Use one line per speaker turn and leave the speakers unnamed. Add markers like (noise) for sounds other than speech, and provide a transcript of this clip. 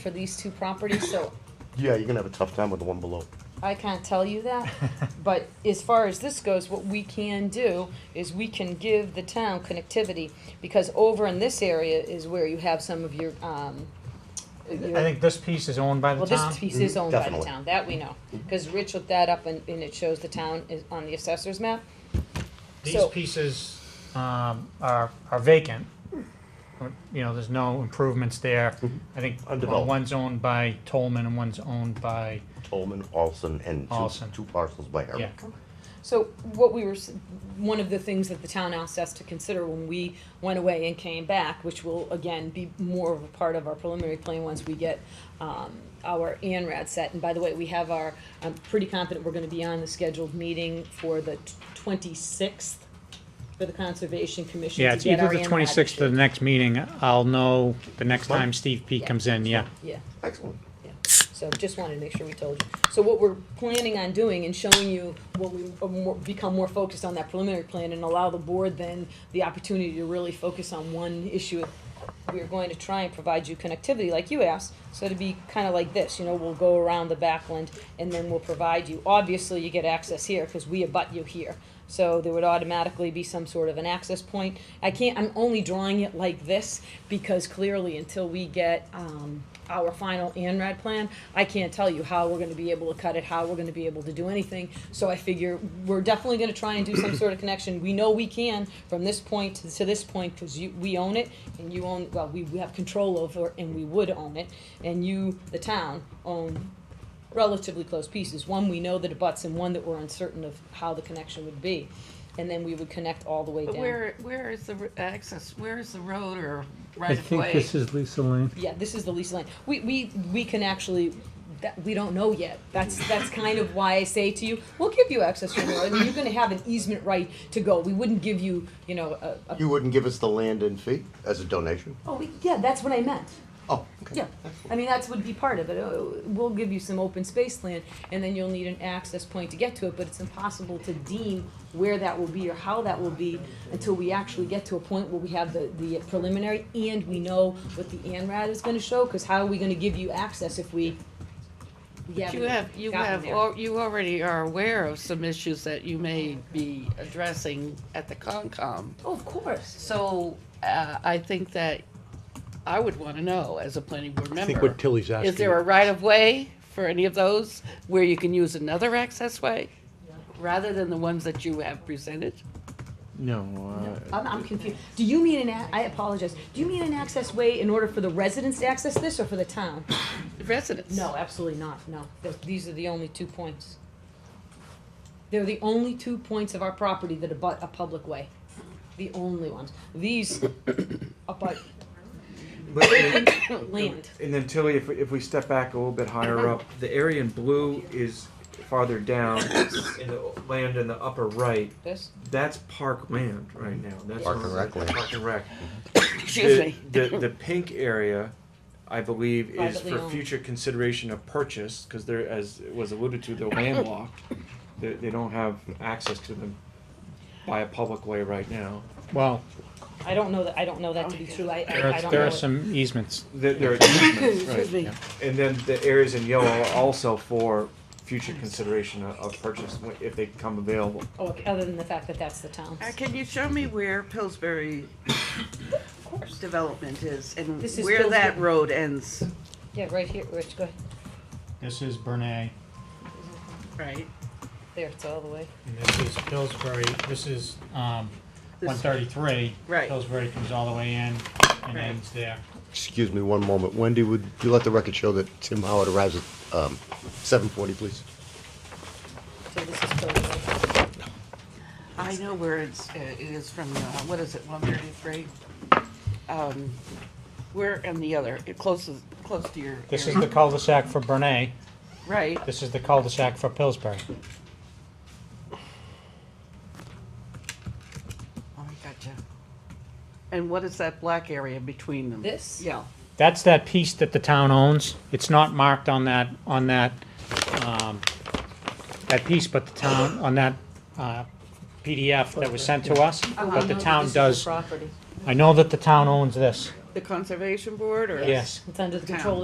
for these two properties, so
Yeah, you're gonna have a tough time with the one below.
I can't tell you
(laughs)
that. But as far as this goes, what we can do is we can give the town connectivity, because over in this area is where you have some of your, um, your-
I think this piece is owned by the
well,
town.
this piece is owned by the
Definitely.
town, that we know, because Rich looked that up and, and it shows the town is on the assessor's map.
These
so-
pieces, um, are, are vacant. You know, there's no improvements there. I think well,
Undeveloped.
one's owned by Tolman and one's owned by,
Tolman, Olson, and two,
Olson.
two parcels by
yeah.
Eric.
So what we were, s- one of the things that the town asked us to consider when we went away and came back, which will again be more of a part of our preliminary plan once we get um, our ANRAD set. And by the way, we have our, I'm pretty confident we're gonna be on the scheduled meeting for the twenty-sixth for the Conservation Commission
Yeah,
to
it's
get
either
our
the
ANRAD
twenty-sixth or the
issued.
next meeting. I'll know the next
Fine.
time Steve P
Yeah.
comes in, yeah.
Yeah.
Excellent.
Yeah, so just wanted to make sure we told you. So what we're planning on doing and showing you when we uh, more- become more focused on that preliminary plan and allow the board then the opportunity to really focus on one issue. We're going to try and provide you connectivity like you asked, so it'd be kind of like this, you know, we'll go around the backland and then we'll provide you. Obviously, you get access here because we abut you here. So there would automatically be some sort of an access point. I can't, I'm only drawing it like this because clearly until we get, um, our final ANRAD plan, I can't tell you how we're gonna be able to cut it, how we're gonna be able to do anything. So I figure we're definitely gonna try and do some sort of connection. We know we can from this point to to this point, cause you, we own it and you own, well, we we have control over and we would own it. And you, the town, own relatively close pieces. One we know that abuts and one that we're uncertain of how the connection would be. And then we would connect all the way
But
down.
where, where is the r- access, where is the road or right
I
of way?
think this is Lisa Lane.
Yeah, this is the lease line. We, we, we can actually, that, we don't know yet. That's, that's kind of why I say to you, we'll give you access to the road. I mean, You're gonna have an easement right to go. We wouldn't give you, you know, a, a,
You wouldn't give us the land and fee as a donation?
oh, we- yeah, that's what I meant.
Oh, okay.
Yeah, I mean, that's would be part of it. Uh, We'll give you some open space land, and then you'll need an access point to get to it, but it's impossible to deem where that will be or how that will be until we actually get to a point where we have the, the preliminary and we know what the ANRAD is gonna show, cause how are we gonna give you access if we, we
You have, you
haven't gotten
have,
there?
al- you already are aware of some issues that you may be addressing at the Concom.
Oh, of course.
So, uh, I think that I would wanna know as a planning board member.
I think what Tilly's asking.
Is there a right of way for any of those where you can use another access way? Rather than the ones that you have presented?
No, uh,
I'm, I'm confused. Do you mean an, a- I apologize, do you mean an access way in order for the residents to access this or for the town?
Residents?
No, absolutely not, no. Th- These are the only two points. They're the only two points of our property that abut a public way. The only ones. These abut
But,
(coughs)
and-
land.
and then Tilly, if, we- if we step back a little bit higher up, the area in blue is farther down, and the land in the upper right,
This,
that's park land right now. That's
Park and rec land.
Park and rec.
Excuse
The-
me.
The, the pink area, I believe, is
Privately
for
owned.
future consideration of purchase, because they're, as was alluded to, they're landlocked. They, they don't have access to them by a public way right now.
Well,
I don't know that, I don't know that to be true. I,
there
I I
are,
don't
there
know.
are
it.
some easements.
There, there are easements, right.
Excuse me.
And then the areas in yellow are also for future consideration of- of purchase when- if they come available.
Oh, okay, Other than the fact that that's the town's.
Uh, Can you show me where Pillsbury development is and
This is
where that
Pillsbury.
road ends?
Yeah, right here, Rich, go ahead.
This is Bernay,
Right.
There, it's all the way.
and this is Pillsbury, this is, um,
This-
one thirty-three.
Right.
Pillsbury comes all the way in and
Right.
ends there.
Excuse me one moment. Wendy, would you let the record show that Tim Howard arrives at, um, seven forty, please?
So this is totally.
I know where it's, uh, it is from, uh, what is it, one thirty-three? Um, where and the other, it closes, close to your
This is
area.
the cul-de-sac for Bernay,
Right,
this is the cul-de-sac for Pillsbury.
oh, I gotcha. And what is that black area between them?
This?
Yeah,
That's that piece that the town owns. It's not marked on that, on that, um, that piece, but the town, on that, uh, PDF that was sent to us. But Uh-huh. the town does,
Property.
I know that the town owns this,
The conservation board or?
yes.
It's under the
Town.
control